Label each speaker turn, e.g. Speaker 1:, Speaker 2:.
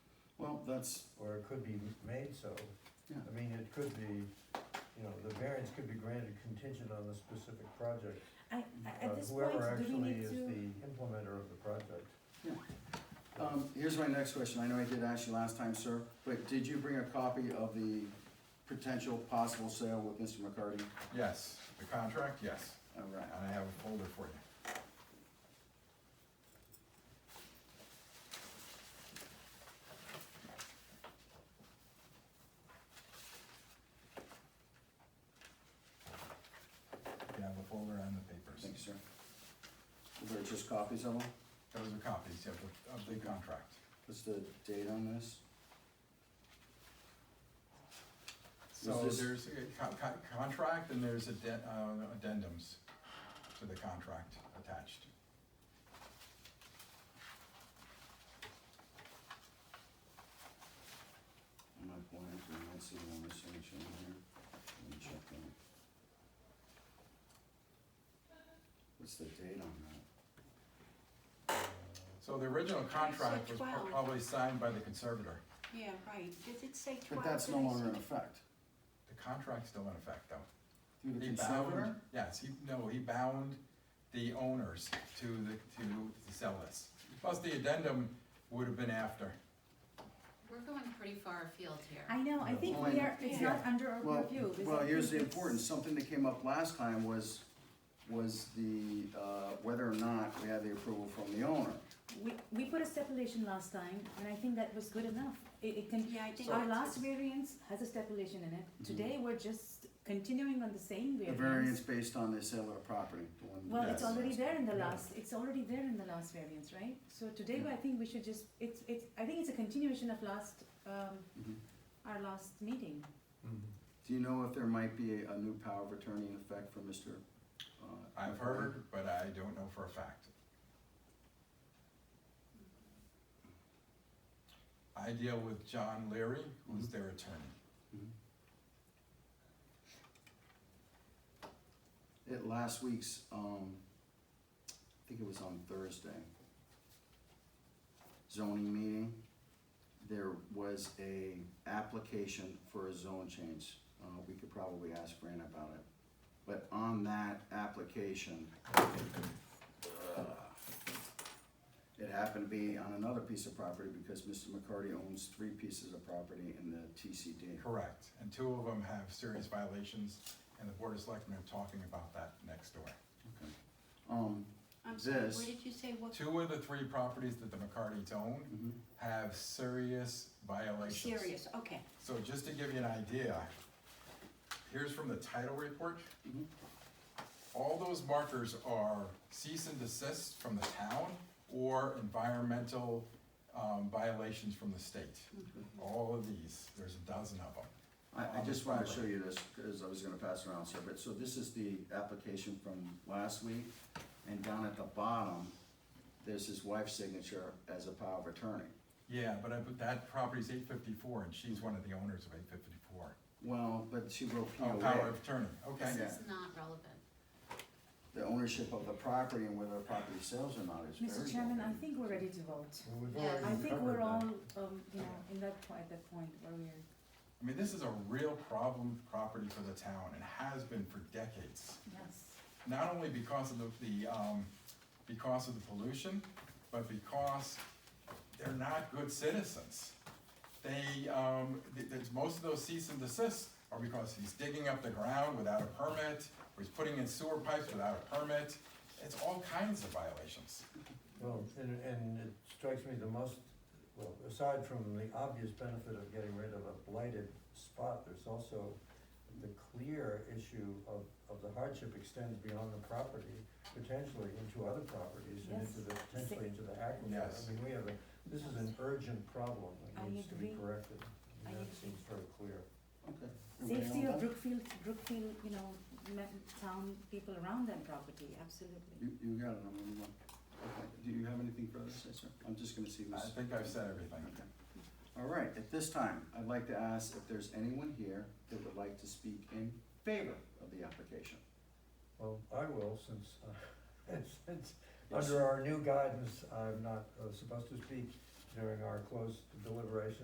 Speaker 1: Well, that's,
Speaker 2: or it could be made so.
Speaker 1: Yeah.
Speaker 2: I mean, it could be, you know, the variance could be granted contingent on the specific project.
Speaker 3: I,
Speaker 2: uh,
Speaker 3: I- at this point,
Speaker 2: Whoever
Speaker 3: do we
Speaker 2: actually
Speaker 3: need
Speaker 2: is
Speaker 3: to?
Speaker 2: the implementer of the project. Mm-hmm.
Speaker 1: Yeah. um, here's my next question, I know I did ask you last time, sir, but did you bring a copy of the potential possible sale with Mr. McCarty?
Speaker 4: Yes, the contract, yes,
Speaker 1: All right,
Speaker 4: and I have a folder for you. You have a folder and the papers.
Speaker 1: thank you, sir. Were there just copies of them?
Speaker 4: Those are copies of the, of the contract.
Speaker 1: What's the date on this?
Speaker 4: So
Speaker 1: this-
Speaker 4: there's a co- co- contract and there's addend- uh, addendums to the contract attached.
Speaker 1: I'm not blind, so I might see one signature in here, let me check that. What's the date on that?
Speaker 4: So the original contract was
Speaker 3: Twelve.
Speaker 4: probably signed by the conservator.
Speaker 3: Yeah, right, did it say
Speaker 1: But that's no longer in effect.
Speaker 4: The contract's still in effect, though.
Speaker 1: Through the
Speaker 4: He
Speaker 1: conservator?
Speaker 4: bound, yes, he, no, he bound the owners to the, to, to sell this. Plus, the addendum would have been after.
Speaker 5: We're going pretty far afield here.
Speaker 3: I know, I think
Speaker 1: Well,
Speaker 3: we are, it's not under our
Speaker 1: Well,
Speaker 3: review. because
Speaker 1: well,
Speaker 3: I
Speaker 1: here's the
Speaker 3: think it's-
Speaker 1: importance, something that came up last time was, was the, uh, whether or not we had the approval from the owner.
Speaker 3: We, we put a stipulation last time, and I think that was good enough. It, it can,
Speaker 5: Yeah, I think
Speaker 3: our
Speaker 5: that's-
Speaker 3: last variance has a stipulation in it. Today, we're just continuing on the same
Speaker 1: Mm-hmm. The variance
Speaker 3: variance.
Speaker 1: based on the sale of the property, the one.
Speaker 3: Well,
Speaker 4: Yes.
Speaker 3: it's already there in the last, it's already there in the last variance, right? So today,
Speaker 1: Mm-hmm.
Speaker 3: I think we should just, it's, it's, I think it's a continuation of last, um,
Speaker 1: Mhm.
Speaker 3: our last meeting.
Speaker 1: Do you know if there might be a, a new power of attorney in effect for Mr.? uh,
Speaker 4: I've heard, but I don't know for a fact. I deal with John Leary, who's their attorney.
Speaker 1: At last week's, um, I think it was on Thursday, zoning meeting, there was a application for a zone change. Uh, we could probably ask Fran about it, but on that application, uh, it happened to be on another piece of property because Mr. McCarty owns three pieces of property in the TCD.
Speaker 4: Correct, and two of them have serious violations, and the board of selectmen are talking about that next door.
Speaker 1: Okay. Um,
Speaker 5: I'm sorry,
Speaker 1: this-
Speaker 5: where did you say what?
Speaker 4: Two of the three properties that the McCartys own
Speaker 1: mhm.
Speaker 4: have serious violations.
Speaker 5: Serious, okay.
Speaker 4: So just to give you an idea, here's from the title report.
Speaker 1: Mhm.
Speaker 4: All those markers are cease and desist from the town or environmental um, violations from the state. All of these, there's a dozen of them.
Speaker 1: I, I just wanna show you this, cause I was gonna pass it around, sir, but, so this is the application from last week, and down at the bottom, there's his wife's signature as a power of attorney.
Speaker 4: Yeah, but I, but that property's eight fifty-four and she's one of the owners of eight fifty-four.
Speaker 1: Well, but she wrote
Speaker 4: Oh, power
Speaker 1: POA,
Speaker 4: of attorney, okay.
Speaker 5: This
Speaker 1: Yeah.
Speaker 5: is not relevant.
Speaker 1: the ownership of the property and whether the property sells or not is very.
Speaker 3: Mr. Chairman, I
Speaker 1: relevant.
Speaker 3: think we're ready to vote.
Speaker 2: Well, we've
Speaker 5: Yeah.
Speaker 2: already
Speaker 3: I think
Speaker 2: covered
Speaker 3: we're
Speaker 2: that.
Speaker 3: all, um, you know, in that point, at that point where we're,
Speaker 4: I mean, this is a real problem property for the town and has been for decades.
Speaker 3: yes.
Speaker 4: not only because of the, the, um, because of the pollution, but because they're not good citizens. They, um, th- there's, most of those cease and desists are because he's digging up the ground without a permit, or he's putting in sewer pipes without a permit. It's all kinds of violations.
Speaker 2: Well, and, and it strikes me the most, well, aside from the obvious benefit of getting rid of a blighted spot, there's also the clear issue of, of the hardship extends beyond the property, potentially into other properties and into the, potentially into the aquifer.
Speaker 4: Yes.
Speaker 2: I mean, we have a, this is an urgent problem
Speaker 3: I
Speaker 2: that needs to be
Speaker 3: agree.
Speaker 2: corrected. and
Speaker 3: I
Speaker 2: That
Speaker 3: agree.
Speaker 2: seems very clear.
Speaker 1: Okay. Everybody
Speaker 3: Safety
Speaker 1: all done?
Speaker 3: of Brookfield, Brookfield, you know, ma- town people around that property, absolutely.
Speaker 1: You, you got it, I'm gonna move on. Okay, do you have anything further to say, sir? I'm just gonna see
Speaker 4: I
Speaker 1: this.
Speaker 4: think I've said everything.
Speaker 1: Okay. All right, at this time, I'd like to ask if there's anyone here that would like to speak in favor of the application.
Speaker 2: Well, I will, since, uh, since,
Speaker 1: Yes.
Speaker 2: under our new guidance, I'm not uh, supposed to speak during our closed deliberation.